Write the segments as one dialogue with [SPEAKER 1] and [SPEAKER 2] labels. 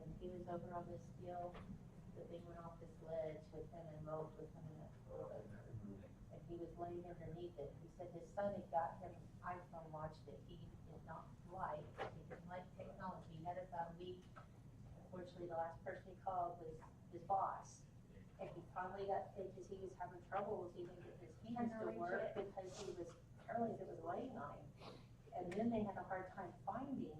[SPEAKER 1] over on this hill, the thing went off this ledge with him and Moat was coming up for it. And he was laying underneath it. He said his son had got him an iPhone watch that he did not like. He didn't like technology. He had it about a week. Unfortunately, the last person he called was his boss. And he finally got, because he was having trouble with even getting his hands to
[SPEAKER 2] Trying to reach
[SPEAKER 1] work because he was paralyzed. It was laying on him. And then they had a hard time finding him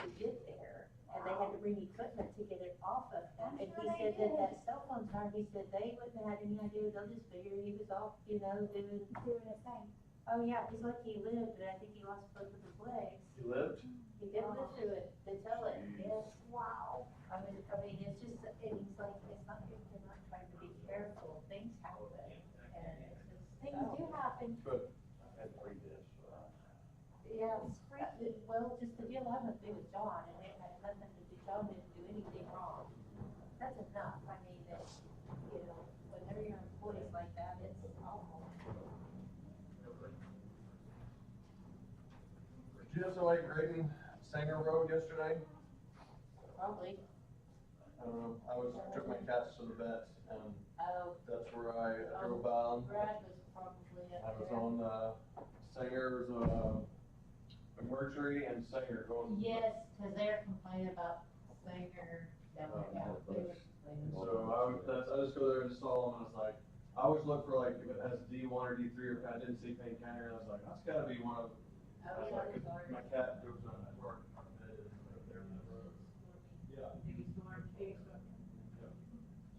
[SPEAKER 1] to get there. And they had to bring equipment to get it off of him.
[SPEAKER 2] I'm
[SPEAKER 1] And
[SPEAKER 2] sure
[SPEAKER 1] he
[SPEAKER 2] they
[SPEAKER 1] said that
[SPEAKER 2] did.
[SPEAKER 1] that cell phone tower, he said they wouldn't have had any idea. They'll just figure he was off, you know, doing,
[SPEAKER 2] doing his thing.
[SPEAKER 1] oh yeah, he's lucky he lived, but I think he lost both of his legs. Oh.
[SPEAKER 3] You lived?
[SPEAKER 1] He did live through it, they tell it, yes.
[SPEAKER 2] Wow.
[SPEAKER 1] I mean, I mean, it's just, and he's like, it's not good, they're not trying to be careful, things happen. And it's just, oh.
[SPEAKER 2] Things do happen.
[SPEAKER 3] But I had three deaths.
[SPEAKER 1] Yeah,
[SPEAKER 2] It's freaky.
[SPEAKER 1] well, just the deal I went through with John, and it had nothing to do, John didn't do anything wrong. That's enough, I mean, that, you know, whenever your employees like that, it's awful.
[SPEAKER 3] GSLA grading Sanger Road yesterday.
[SPEAKER 1] Probably.
[SPEAKER 3] I don't know, I was, took my cats to the vet and
[SPEAKER 1] Oh,
[SPEAKER 3] that's where I drove by.
[SPEAKER 1] Brad was probably
[SPEAKER 3] I
[SPEAKER 1] up
[SPEAKER 3] was
[SPEAKER 1] there.
[SPEAKER 3] on, uh, Sanger's, uh, Mercury and Sanger going.
[SPEAKER 1] Yes, because they're complaining about Oh, Sanger, that
[SPEAKER 3] Oh,
[SPEAKER 1] went out. They were complaining.
[SPEAKER 3] So I would, that's, I just go there and just saw them, and I was like, I always look for like, if it has D one or D three, or if I didn't see Payne County, and I was like, that's gotta be one of. I
[SPEAKER 1] Oh,
[SPEAKER 3] was
[SPEAKER 1] yeah,
[SPEAKER 3] like,
[SPEAKER 1] it's
[SPEAKER 3] 'cause
[SPEAKER 1] already.
[SPEAKER 3] My cat goes on that work. and they're in the road. Yeah.
[SPEAKER 1] They're